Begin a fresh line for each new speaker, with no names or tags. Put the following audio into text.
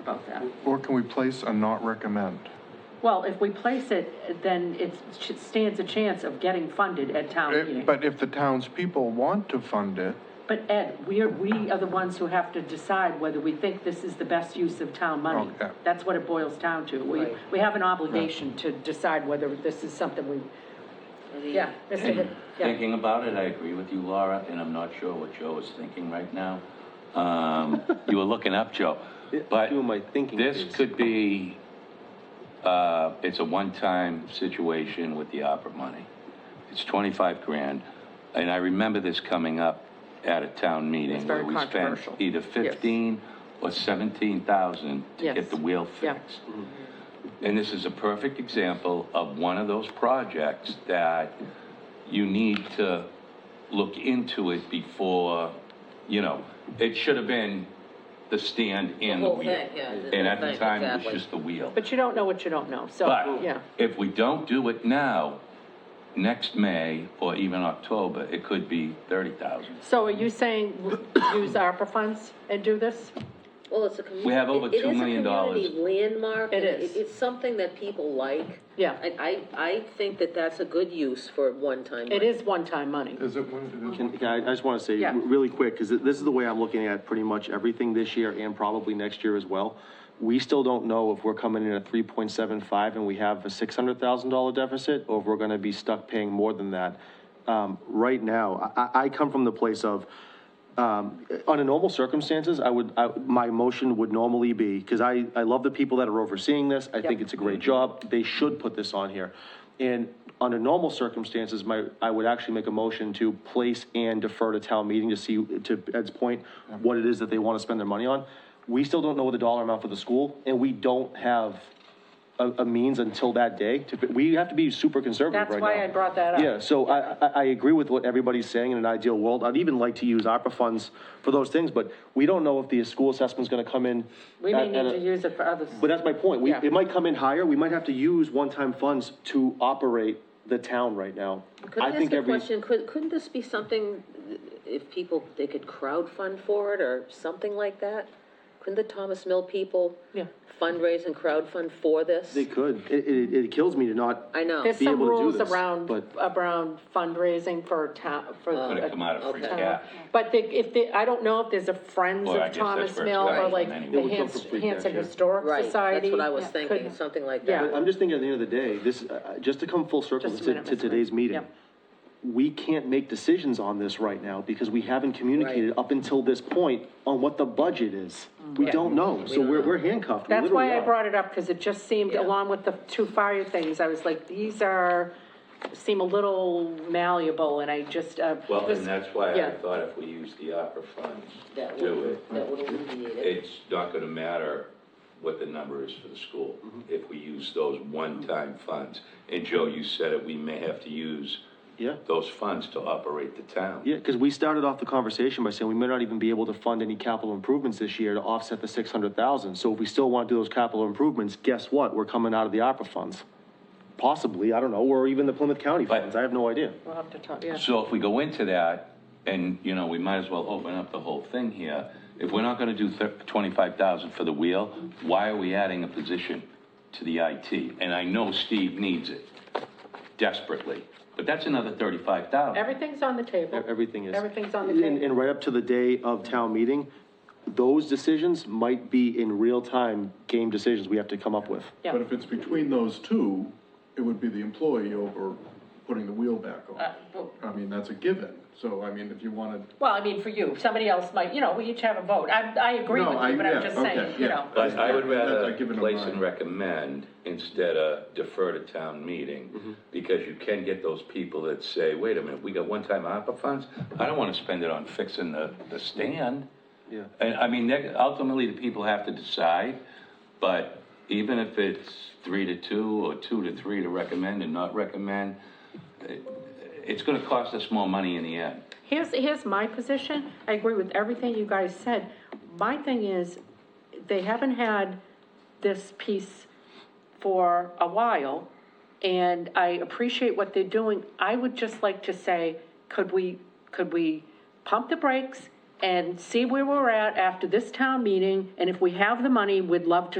about that.
Or can we place a not recommend?
Well, if we place it, then it sh- stands a chance of getting funded at town
Eh,
meeting.
But if the townspeople want to fund it,
But Ed, we are, we are the ones who have to decide whether we think this is the best use of town money.
Okay.
That's what it boils down to. We, we have an obligation to decide whether this is something we, yeah, Mr. Hick- yeah.
Thinking about it, I agree with you, Laura, and I'm not sure what Joe is thinking right now. Um, You were looking up, Joe. But
Doing my thinking
this
is-
could be, uh, it's a one-time situation with the opera money. It's 25 grand, and I remember this coming up at a town meeting.
It's very
Where we
controversial.
spent either 15 or 17,000 to
Yes.
get the wheel
Yeah.
fixed. Mm-hmm. And this is a perfect example of one of those projects that you need to look into it before, you know, it should have been the stand and the
whole
wheel.
thing, yeah, the
And at
whole
the
thing,
time, it was
exactly.
just the wheel.
But you don't know what you don't know, so, yeah.
But if we don't do it now, next May or even October, it could be 30,000.
So are you saying use ARPA funds and do this?
Well, it's a commu-
We have over
it- it
$2
is a
million
community landmark.
It
and
is.
It's something that people like.
Yeah.
And I, I think that that's a good use for one-time money.
It is one-time money.
is it?
Can, can I, I just want to say,
Yeah.
really quick, because this is the way I'm looking at pretty much everything this year and probably next year as well. We still don't know if we're coming in at three point seven five and we have a six hundred thousand dollar deficit, or if we're going to be stuck paying more than that. Um, right now, I- I, I come from the place of, um, under normal circumstances, I would, I, my motion would normally be, because I, I love the people that are overseeing this, I think it's a great job, they should put this on here. And under normal circumstances, my, I would actually make a motion to place and defer to town meeting to see, to Ed's point, what it is that they want to spend their money on. We still don't know the dollar amount for the school, and we don't have a, a means until that day. to- We have to be super conservative
That's
right now.
why I brought that up.
Yeah, so I, I, I agree with what everybody's saying in an ideal world. I'd even like to use ARPA funds for those things, but we don't know if the school assessment's gonna come in.
We may
at- at
need
a-
to use it for others.
But that's my point. We,
Yeah.
it might come in higher. We might have to use one-time funds to operate the town right now.
Could I
think
ask a
every-
question? Could, couldn't this be something, if people, they could crowdfund for it or something like that? Couldn't the Thomas Mill people
Yeah.
fundraise and crowdfund for this?
They could. It, it, it kills me to not.
I know.
There's
be
some
able to do
rules
this,
around,
but-
around fundraising for town, for.
Could have Oh, come out of free
Okay.
cash.
But the, if the, I don't know if there's a Friends
Well, I
of
guess that's
Thomas
where it's
Mill or
going
like
anyway.
the
would come
Hans-
from free cash,
Hanson
yeah.
Historic
Right,
Society.
that's what I was
could-
thinking, something like
Yeah.
that.
I'm just thinking at the end of the day, this, uh, just to come full circle
Just a
to,
minute,
to
Mr.
today's
Ray.
meeting,
Yep.
we can't make decisions on this right now because we haven't communicated up until this point on what the budget is.
Mm.
We don't know, so we're, we're handcuffed. We
That's
literally
why I
are.
brought it up, because it just seemed,
Yeah.
along with the two fire things, I was like, these are, seem a little malleable, and I just, uh.
Well,
this-
and that's why I
yeah.
thought if we use the opera funds to
That
do
would,
it,
that would alleviate it.
it's not gonna matter what the number is for the school if we use those one-time funds. And Joe, you said it, we may have to use
Yeah.
those funds to operate the town.
Yeah, because we started off the conversation by saying we may not even be able to fund any capital improvements this year to offset the six hundred thousand. So if we still want to do those capital improvements, guess what? We're coming out of the ARPA funds. Possibly, I don't know, or even the Plymouth County
But-
funds. I have no idea.
We'll have to talk, yeah.
So if we go into that, and, you know, we might as well open up the whole thing here, if we're not gonna do thir- twenty-five thousand for the wheel, why are we adding a position to the IT? And I know Steve needs it desperately, but that's another thirty-five thousand.
Everything's on the table.
e-, Everything is.
Everything's on the
And-
table.
And right up to the day of town meeting, those decisions might be in real-time game decisions we have to come up with.
Yeah.
But if it's between those two, it would be the employee over putting the wheel back
Uh,
on. I mean, that's a given. So, I mean, if you wanted,
Well, I mean, for you, somebody else might, you know, we each have a vote. I, I agree
No,
with
I-
you, but I'm
yeah,
just
okay,
saying, you
yeah.
know.
But I would rather
That's a given of
place
mine.
and recommend instead of defer to town meeting, because you can get those people that say, wait a minute, we got one-time ARPA funds? I don't wanna spend it on fixing the, the stand.
Yeah.
And, I mean, that- ultimately, the people have to decide, but even if it's three to two, or two to three to recommend and not recommend, it- it's gonna cost us more money in the end.
Here's, here's my position, I agree with everything you guys said. My thing is, they haven't had this piece for a while, and I appreciate what they're doing. I would just like to say, could we, could we pump the brakes and see where we're at after this town meeting, and if we have the money, we'd love to